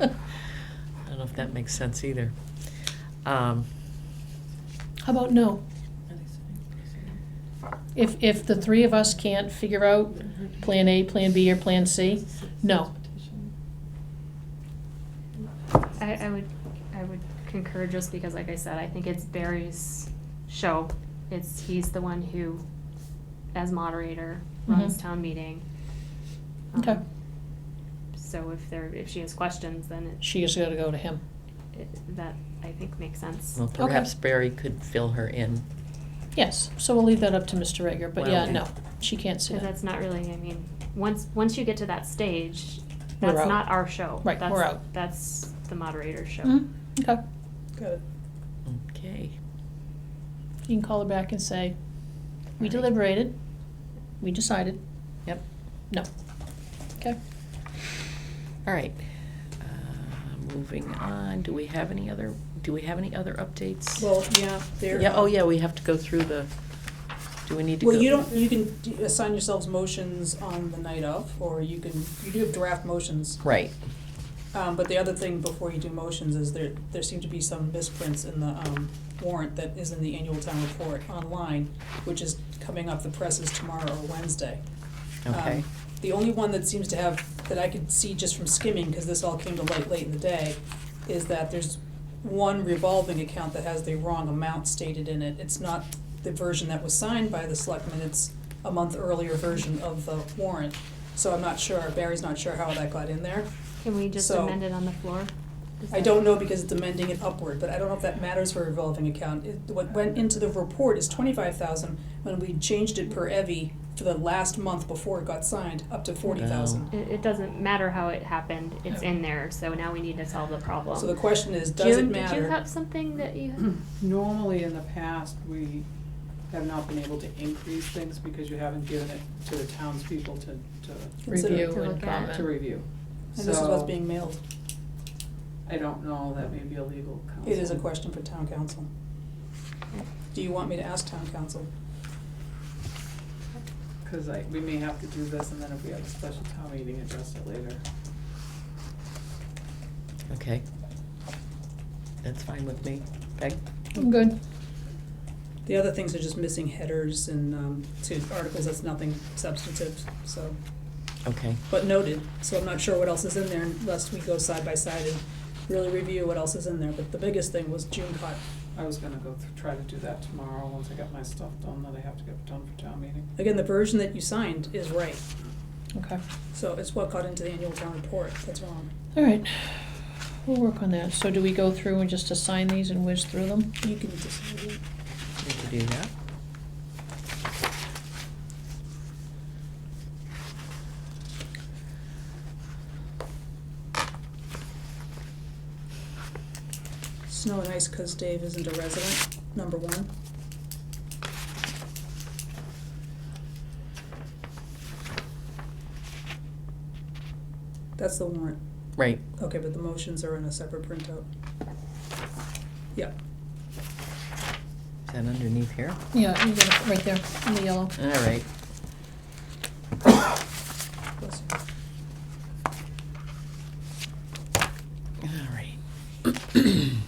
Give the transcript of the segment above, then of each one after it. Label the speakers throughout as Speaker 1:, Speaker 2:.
Speaker 1: I don't know if that makes sense either. Um,
Speaker 2: How about no? If, if the three of us can't figure out Plan A, Plan B, or Plan C, no.
Speaker 3: I, I would, I would concur just because, like I said, I think it's Barry's show. It's, he's the one who, as moderator, runs
Speaker 2: Mhm.
Speaker 3: town meeting.
Speaker 2: Okay.
Speaker 3: Um, So if there, if she has questions, then it,
Speaker 2: she has gotta go to him.
Speaker 3: it- that, I think, makes sense.
Speaker 1: Well,
Speaker 2: Okay.
Speaker 1: perhaps Barry could fill her in.
Speaker 2: Yes, so we'll leave that up to Mr. Egger, but yeah,
Speaker 1: Well-
Speaker 2: no, she can't sit
Speaker 3: Because
Speaker 2: in.
Speaker 3: that's not really, I mean, once, once you get to that stage,
Speaker 2: We're
Speaker 3: that's
Speaker 2: out.
Speaker 3: not our show.
Speaker 2: Right,
Speaker 3: That's-
Speaker 2: we're out.
Speaker 3: That's the moderator's show.
Speaker 2: Mhm, Okay,
Speaker 4: Got it.
Speaker 1: Okay.
Speaker 2: you can call her back and say, we
Speaker 1: Right.
Speaker 2: deliberated, we decided,
Speaker 1: Yep.
Speaker 2: no. Okay,
Speaker 1: All right. Uh, Moving on, do we have any other, do we have any other updates?
Speaker 4: Well, yeah, there.
Speaker 1: Yeah, oh yeah, we have to go through the, do we need to go?
Speaker 4: Well, you don't, you can d- assign yourselves motions on the night of, or you can, you do have draft motions.
Speaker 1: Right,
Speaker 4: Um, but the other thing before you do motions is there, there seem to be some misprints in the, um, warrant that is in the annual town report online, which is coming up, the press is tomorrow or Wednesday. Um,
Speaker 1: okay.
Speaker 4: The only one that seems to have, that I could see just from skimming, because this all came to light late in the day, is that there's one revolving account that has the wrong amount stated in it. It's not the version that was signed by the selectmen, it's a month earlier version of the warrant. So I'm not sure, Barry's not sure how that got in there.
Speaker 3: Can we just
Speaker 4: So-
Speaker 3: amend it on the floor? Is
Speaker 4: I
Speaker 3: that-
Speaker 4: don't know because it's amending it upward, but I don't know if that matters for a revolving account. It, what went into the report is twenty-five thousand, when we changed it per evy to the last month before it got signed, up to forty thousand.
Speaker 3: It, it doesn't matter how it happened, it's in there, so now we need to solve the problem.
Speaker 4: So the question is, does it
Speaker 3: June, Did you
Speaker 4: matter?
Speaker 3: have something that
Speaker 5: Hmm.
Speaker 3: you,
Speaker 5: Normally, in the past, we have not been able to increase things because you haven't given it to the townspeople to, to,
Speaker 4: Consider-
Speaker 2: review
Speaker 3: To
Speaker 2: and
Speaker 3: look at.
Speaker 5: to
Speaker 2: comment.
Speaker 5: review.
Speaker 4: And this is what's
Speaker 5: So,
Speaker 4: being mailed.
Speaker 5: I don't know, that may be a legal counsel.
Speaker 4: It is a question for town council. Do you want me to ask town council?
Speaker 5: Cause I, we may have to do this, and then if we have a special town meeting, address it later.
Speaker 1: Okay. That's fine with me. Peg?
Speaker 2: I'm good.
Speaker 4: The other things are just missing headers and, um, to articles, that's nothing substantive, so,
Speaker 1: Okay,
Speaker 4: but noted. So I'm not sure what else is in there unless we go side by side and really review what else is in there. But the biggest thing was June caught,
Speaker 5: I was gonna go th- try to do that tomorrow, once I got my stuff done, that I have to get done for town meeting.
Speaker 4: again, the version that you signed is right.
Speaker 2: Okay,
Speaker 4: So it's what got into the annual town report that's wrong.
Speaker 2: all right, we'll work on that. So do we go through and just assign these and whiz through them?
Speaker 4: You can just,
Speaker 1: we can do that.
Speaker 4: snow and ice, cause Dave isn't a resident, number one. That's the warrant.
Speaker 1: Right,
Speaker 4: Okay, but the motions are in a separate printout. Yeah,
Speaker 1: is that underneath here?
Speaker 2: Yeah, you got it right there in the yellow.
Speaker 1: All right.
Speaker 4: plus-
Speaker 1: All right.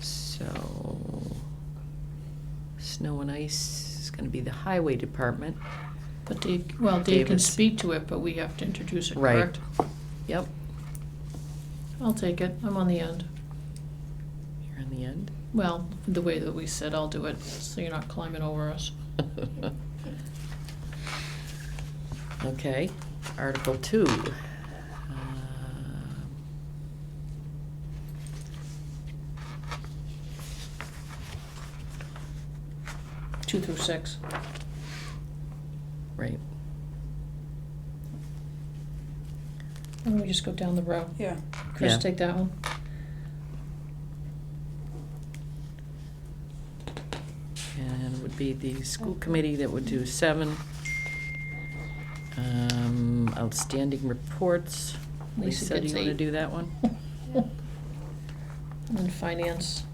Speaker 1: So, snow and ice is gonna be the highway department.
Speaker 2: But Dave, well, Dave can
Speaker 1: Davis.
Speaker 2: speak to it, but we have to introduce it,
Speaker 1: Right.
Speaker 2: correct?
Speaker 1: Yep,
Speaker 2: I'll take it, I'm on the end.
Speaker 1: you're on the end.
Speaker 2: Well, the way that we said, I'll do it, so you're not climbing over us.
Speaker 1: Okay, Article Two. Uh, Um,
Speaker 2: Two through six.
Speaker 1: Right,
Speaker 2: And we just go down the row.
Speaker 4: yeah,
Speaker 2: Chris,
Speaker 1: Yeah.
Speaker 2: take that one.
Speaker 1: and it would be the school committee that would do seven. Um, Outstanding reports. Lisa,
Speaker 2: Lisa
Speaker 1: do
Speaker 2: gets
Speaker 1: you wanna
Speaker 2: eight.
Speaker 1: do that one?
Speaker 2: And finance,